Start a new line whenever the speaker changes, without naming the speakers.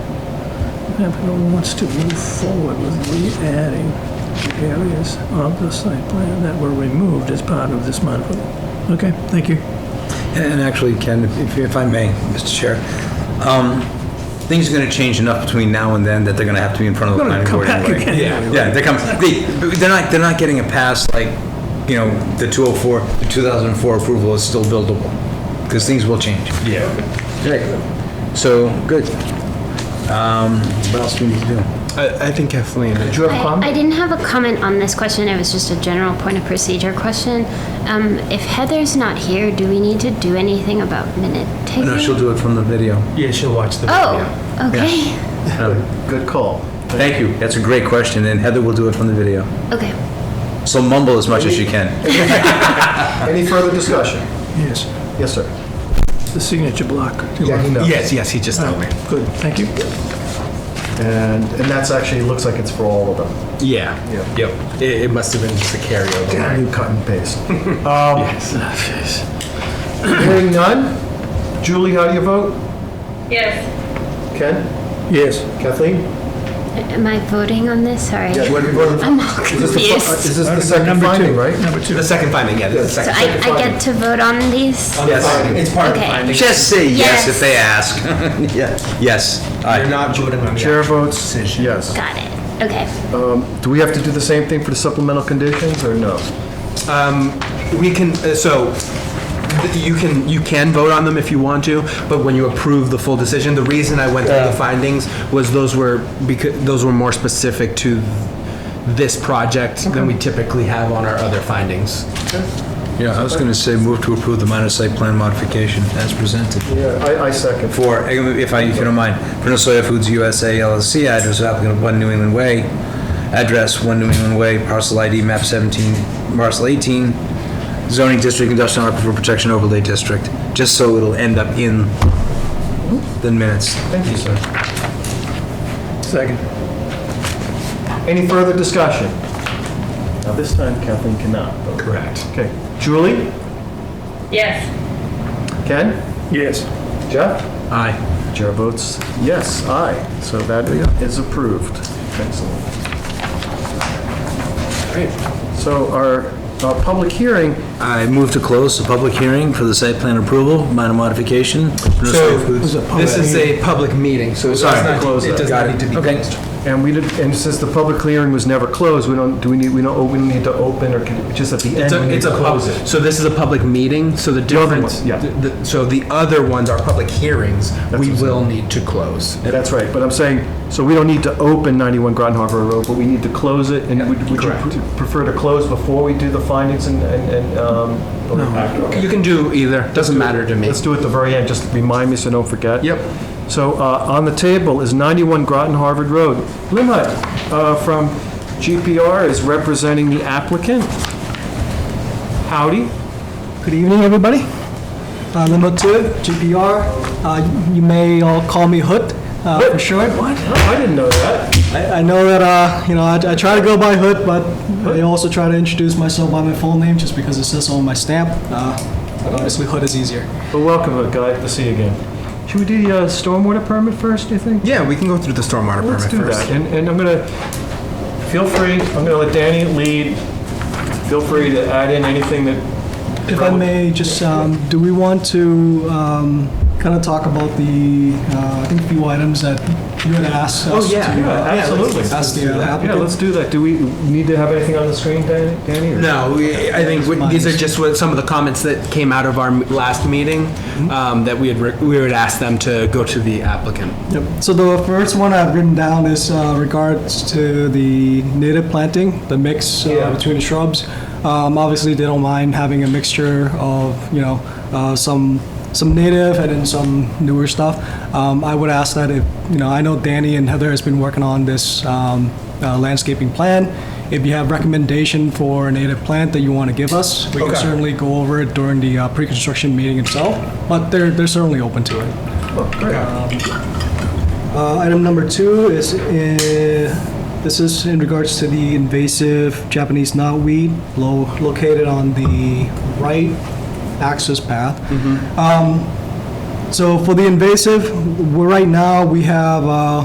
applicant wants to move forward with re-adding the areas of the site plan that were removed as part of this modification. Okay, thank you.
And actually, Ken, if, if I may, Mr. Chair, um, things are gonna change enough between now and then that they're gonna have to be in front of the
Gonna
planning
come
board
back
anyway.
again anyway.
Yeah, they come, they, they're not, they're not getting a pass like, you know, the 204, the 2004 approval is still buildable, because things will change. Yeah. Okay, so, good. Um, what else do we need to do?
I, I think Kathleen. Did you
I- I didn't have a comment on this question, it was just a general point of procedure question. Um, if Heather's not here, do we need to do anything about minute taking?
Oh, No, she'll do it from the video.
Yeah, she'll watch the
Oh, okay,
video. Good
Um,
call.
Thank you, that's a great question, and Heather will do it from the video.
okay.
So mumble as much as you can.
Any further discussion?
Yes,
Yes, sir.
the signature block.
Yeah, he knows.
Yes, yes, he just told me.
Good, thank you.
And, and that's actually, looks like it's for all of them.
Yeah. Yep. It, it must have been just a carryover.
You cut and paste.
Um,
Ah, jeez.
Hearing none? Julie, how do you vote?
Yes,
Ken?
Yes.
Kathleen?
Am I voting on this? Sorry.
Yeah, what do you vote?
I'm all
Is this the fi-
confused.
Is this the second
Number two.
finding, right?
Number two.
The second finding, yeah. The
So
second.
I, I get to vote on these?
Yes. It's part of the
Okay.
finding.
Just say yes if
Yes.
they ask. Yeah. Yes,
You're
aye.
not voting on the
Chair
actual
votes
decision.
yes.
Got it, okay.
Do we have to do the same thing for the supplemental conditions, or no?
We can, uh, so, th- you can, you can vote on them if you want to, but when you approve the full decision, the reason I went through the findings was those were, because, those were more specific to this project than we typically have on our other findings.
Yeah, I was gonna say move to approve the minor site plan modification as presented.
Yeah, I, I second.
For, if I, if you don't mind, for No Soya Foods USA LLC, address of applicant of One New England Way, address One New England Way, parcel ID map 17, parcel 18, zoning district, industrial aquifer protection overlay district, just so it'll end up in the minutes.
Thank you, sir.
Second.
Any further discussion? Now, this time Kathleen cannot vote.
Correct.
Okay. Julie?
yes,
Ken?
Yes.
Jeff?
Aye.
Chair votes yes, aye. So that is approved. Excellent. Great. So our uh, public hearing,
I move to close the public hearing for the site plan approval, minor modification. No
So,
Soya Foods.
this is a public meeting, so it does
Sorry.
not,
Close
it
it.
does
Got
not
it.
need to be
Okay.
closed.
and we did, and since the public hearing was never closed, we don't, do we need, we don't, oh, we need to open, or can, just at the end?
It's
we
a,
need
it's
to
a, pub-
close it.
so this is a public meeting, so the
other
difference.
one, yeah.
the- the- So the other ones are public hearings, we
what's
will need to close.
That's right, but I'm saying, so we don't need to open 91 Groton Harbor Road, but we need to close it, and would would you
Correct.
pr- prefer to close before we do the findings and, and- and, um?
You can do either, doesn't matter to me.
Let's do it at the very end, just remind me so I don't forget.
Yep.
So uh, on the table is 91 Groton Harvard Road. Lynn Hutt, uh from GPR is representing the applicant. Howdy.
Good evening, everybody. Uh, Limbo 2, GPR. Uh, you may all call me Hood uh, for short.
I didn't know that.
I, I know that uh, you know I, I try to go by Hood, but I also try to introduce myself by my full name just because it says so on my stamp. Uh, but obviously, Hood is easier.
Well, welcome, uh, guy, to see you again. Should we do the uh, stormwater permit first, do you think?
Yeah, we can go through the stormwater
Let's
permit
do that.
first.
And and I'm gonna, feel free, I'm gonna let Danny lead. Feel free to add in anything that,
If I may, just um, do we want to um, kind of talk about the uh, I think a few items that you had asked
Oh,
us
yeah.
to
Yeah,
uh,
absolutely.
ask the uh,
Yeah,
applicant.
let's do that. Do we need to have anything on the screen, Dan- Danny? or-
No, we- I think we- these are just what, some of the comments that came out of our m- last meeting,
Mm-hmm.
um, that we had, re- we would ask them to go to the applicant.
Yep. So the first one I've written down is uh, regards to the native planting, the mix uh, between the shrubs. Um, obviously, they don't mind having a mixture of you know uh, some some native and then some newer stuff. Um, I would ask that if you know I know Danny and Heather has been working on this um, uh, landscaping plan. If you have recommendation for a native plant that you want to give us, we can certainly go over it during the uh, pre-construction meeting itself. But they're they're certainly open to it. Uh, Item number two is, uh, this is in regards to the invasive Japanese knotweed lo- located on the right access path. Um, So for the invasive, we're right now, we have uh,